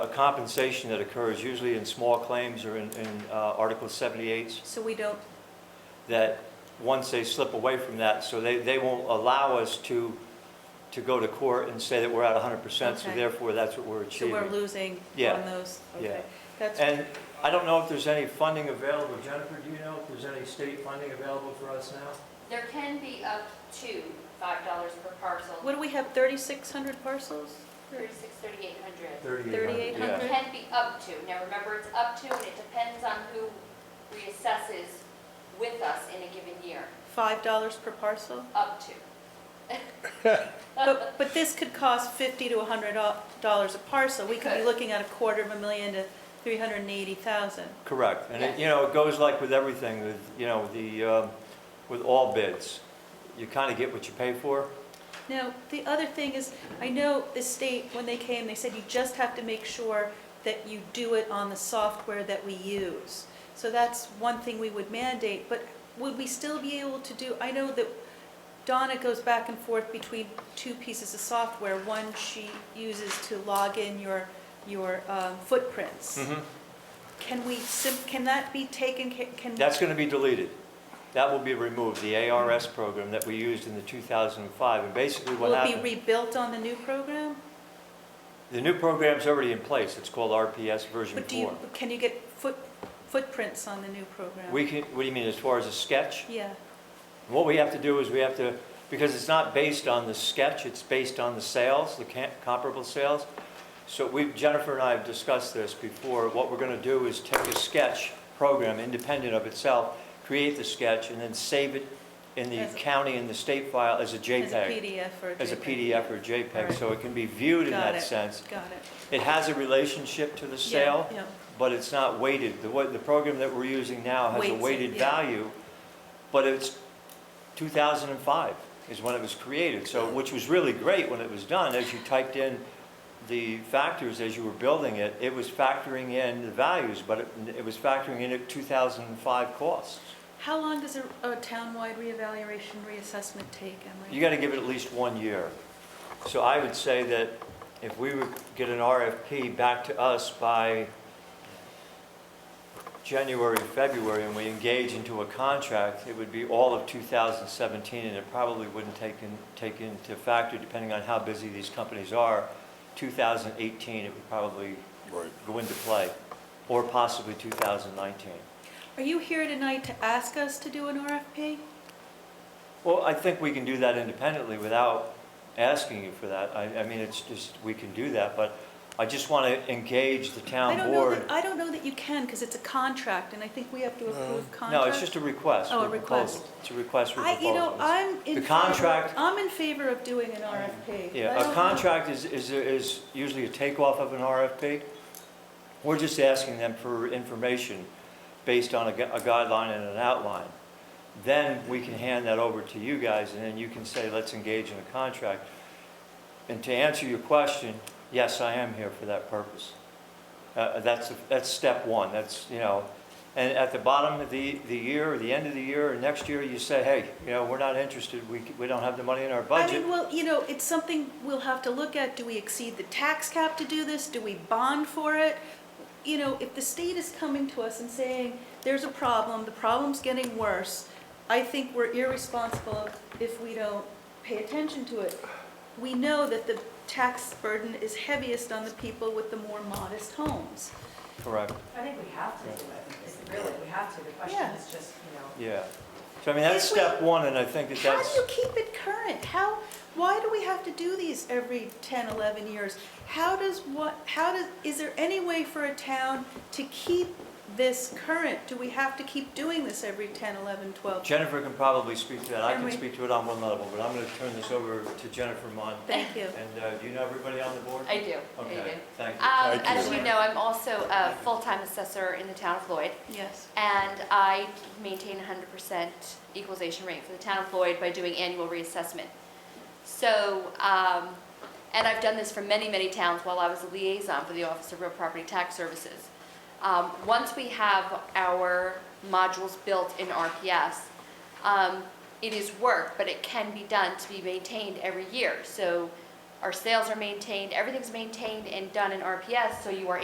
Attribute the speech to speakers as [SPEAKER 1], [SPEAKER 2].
[SPEAKER 1] a compensation that occurs usually in small claims or in, in uh, Article 78s,
[SPEAKER 2] So we don't,
[SPEAKER 1] that once they slip away from that, so they, they won't allow us to, to go to court and say that we're at 100%, so
[SPEAKER 2] Okay.
[SPEAKER 1] therefore that's what we're
[SPEAKER 2] so
[SPEAKER 1] achieving.
[SPEAKER 2] we're losing
[SPEAKER 1] Yeah.
[SPEAKER 2] on those?
[SPEAKER 1] Yeah.
[SPEAKER 2] Okay. That's,
[SPEAKER 1] And I don't know if there's any funding available. Jennifer, do you know if there's any state funding available for us now?
[SPEAKER 3] There can be up to five dollars per parcel.
[SPEAKER 2] what do we have, 3,600 parcels?
[SPEAKER 3] Thirty-six, thirty-eight hundred.
[SPEAKER 1] 3,800. yeah.
[SPEAKER 2] 3,800?
[SPEAKER 3] Can be up to. Now, remember, it's up to, and it depends on who reassesses with us in a given year.
[SPEAKER 2] $5 per parcel?
[SPEAKER 3] Up to.
[SPEAKER 2] But, but this could cost 50 to 100 dollars a parcel. We could be
[SPEAKER 3] Could.
[SPEAKER 2] looking at a quarter of a million to 380,000.
[SPEAKER 1] Correct. And, it- you know, it goes like with everything, with, you know, the, um, with all bids. You kind of get what you pay for.
[SPEAKER 2] Now, the other thing is, I know the state, when they came, they said you just have to make sure that you do it on the software that we use. So that's one thing we would mandate, but would we still be able to do, I know that Donna goes back and forth between two pieces of software. One she uses to log in your, your um, footprints.
[SPEAKER 1] Mm-hmm.
[SPEAKER 2] Can we, sim- can that be taken, ca- can?
[SPEAKER 1] That's going to be deleted. That will be removed, the ARS program that we used in the 2005. And basically what
[SPEAKER 2] Will it be
[SPEAKER 1] happened,
[SPEAKER 2] rebuilt on the new program?
[SPEAKER 1] the new program's already in place. It's called RPS version
[SPEAKER 2] But do you,
[SPEAKER 1] four.
[SPEAKER 2] can you get foot, footprints on the new program?
[SPEAKER 1] We can, what do you mean, as far as a sketch?
[SPEAKER 2] Yeah,
[SPEAKER 1] What we have to do is we have to, because it's not based on the sketch, it's based on the sales, the ca- comparable sales. So we, Jennifer and I have discussed this before. What we're going to do is take a sketch program independent of itself, create the sketch, and then save it in the
[SPEAKER 2] As a-
[SPEAKER 1] county and the state file as a
[SPEAKER 2] as a
[SPEAKER 1] JPEG.
[SPEAKER 2] PDF or a
[SPEAKER 1] As a
[SPEAKER 2] JPEG.
[SPEAKER 1] PDF or JPEG,
[SPEAKER 2] Alright.
[SPEAKER 1] so it can be viewed in
[SPEAKER 2] Got
[SPEAKER 1] that
[SPEAKER 2] it.
[SPEAKER 1] sense.
[SPEAKER 2] Got it.
[SPEAKER 1] It has a relationship to the
[SPEAKER 2] Yeah,
[SPEAKER 1] sale,
[SPEAKER 2] yeah.
[SPEAKER 1] but it's not weighted. The, wa- the program that we're using now has
[SPEAKER 2] Weights
[SPEAKER 1] a
[SPEAKER 2] it,
[SPEAKER 1] weighted
[SPEAKER 2] yeah.
[SPEAKER 1] value, but it's 2005 is when it was created, so, which was really great when it was done. As you typed in the factors as you were building it, it was factoring in the values, but it, it was factoring in at 2005 costs.
[SPEAKER 2] How long does a, a townwide reevaluation reassessment take,
[SPEAKER 1] You
[SPEAKER 2] Emery?
[SPEAKER 1] got to give it at least one year. So I would say that if we would get an RFP back to us by January, February, and we engage into a contract, it would be all of 2017, and it probably wouldn't take in, take into factor, depending on how busy these companies are, 2018, it would probably
[SPEAKER 4] Right.
[SPEAKER 1] go into play, or possibly 2019.
[SPEAKER 2] Are you here tonight to ask us to do an RFP?
[SPEAKER 1] Well, I think we can do that independently without asking you for that. I, I mean, it's just, we can do that, but I just want to engage the
[SPEAKER 2] I
[SPEAKER 1] town
[SPEAKER 2] don't know
[SPEAKER 1] board.
[SPEAKER 2] that, I don't know that you can, because it's a contract, and I think we have to approve contracts.
[SPEAKER 1] No, it's just a request.
[SPEAKER 2] Oh,
[SPEAKER 1] for
[SPEAKER 2] a request.
[SPEAKER 1] proposal. It's a request for
[SPEAKER 2] I, you know,
[SPEAKER 1] proposals.
[SPEAKER 2] I'm in.
[SPEAKER 1] The
[SPEAKER 2] favor-
[SPEAKER 1] contract-
[SPEAKER 2] I'm in favor of doing an RFP. I
[SPEAKER 1] Yeah,
[SPEAKER 2] don't
[SPEAKER 1] a
[SPEAKER 2] know.
[SPEAKER 1] contract is, is, is usually a takeoff of an RFP. We're just asking them for information based on a gu- a guideline and an outline. Then we can hand that over to you guys, and then you can say, let's engage in a contract. And to answer your question, yes, I am here for that purpose. Uh, That's, that's step one, that's, you know, and at the bottom of the, the year, or the end of the year, or next year, you say, hey, you know, we're not interested, we, c- we don't have the money in our
[SPEAKER 2] I
[SPEAKER 1] budget.
[SPEAKER 2] mean, well, you know, it's something we'll have to look at. Do we exceed the tax cap to do this? Do we bond for it? You know, if the state is coming to us and saying, there's a problem, the problem's getting worse, I think we're irresponsible if we don't pay attention to it. We know that the tax burden is heaviest on the people with the more modest homes.
[SPEAKER 1] Correct.
[SPEAKER 5] I think we have to do it, is really, we have to, the question
[SPEAKER 2] Yeah.
[SPEAKER 5] is just, you know.
[SPEAKER 1] Yeah. So I mean, that's
[SPEAKER 2] If we-
[SPEAKER 1] step one, and I think that
[SPEAKER 2] How do
[SPEAKER 1] that's,
[SPEAKER 2] you keep it current? How, why do we have to do these every 10, 11 years? How does what, how does, is there any way for a town to keep this current? Do we have to keep doing this every 10, 11, 12?
[SPEAKER 1] Jennifer can probably speak to that. I
[SPEAKER 2] Can
[SPEAKER 1] can
[SPEAKER 2] we-
[SPEAKER 1] speak to it on one level, but I'm going to turn this over to Jennifer Mon.
[SPEAKER 2] Thank you.
[SPEAKER 1] And uh, do you know everybody on the board?
[SPEAKER 3] I do, I do.
[SPEAKER 1] Okay, thank you.
[SPEAKER 3] Um,
[SPEAKER 4] Thank
[SPEAKER 3] as
[SPEAKER 4] you.
[SPEAKER 3] you know, I'm also a full-time assessor in the town of Floyd,
[SPEAKER 2] Yes.
[SPEAKER 3] and I maintain hundred percent equalization rate for the town of Lloyd by doing annual reassessment. So, um, and I've done this for many, many towns while I was a liaison for the Office of Real Property Tax Services. Um, once we have our modules built in RPS, um, it is work, but it can be done to be maintained every year. So Our sales are maintained, everything's maintained and done in RPS, so you are